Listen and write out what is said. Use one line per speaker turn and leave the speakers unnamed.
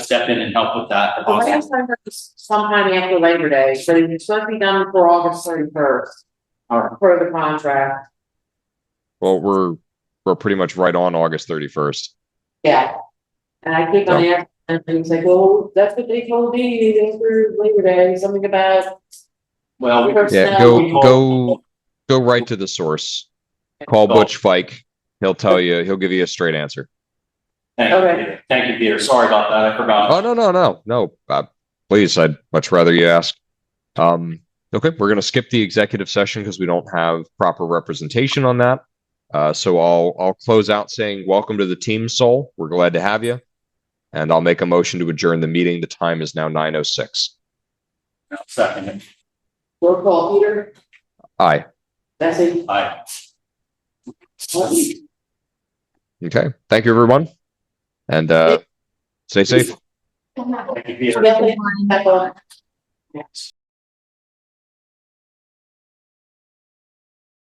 step in and help with that. if
The
possible.
last time was sometime after Labor Day, so it's supposed to be done before August thirty first. Or per the contract,
Well, we're, we're pretty much right on August thirty-first.
yeah. And I keep on asking, and he's like, well, that's what they told me, they through Labor Day, something about.
Well, we
Yeah,
Yeah,
So-
go, go, go right to the source. Call Butch Fike. He'll tell you, he'll give you a straight answer.
Thank you,
Okay.
Peter. Thank you, Peter. Sorry about that. I forgot.
Oh, no, no, no, no, uh, please, I'd much rather you ask. Um, okay, we're gonna skip the executive session because we don't have proper representation on that. Uh, so I'll, I'll close out saying, welcome to the team, Soul. We're glad to have you. And I'll make a motion to adjourn the meeting. The time is now nine oh six.
Second,
Roll call, Peter,
Aye,
Bessie,
aye.
Martin.
okay, thank you, everyone. And, uh, stay safe.
Thank you, Peter.
Definitely, that's all.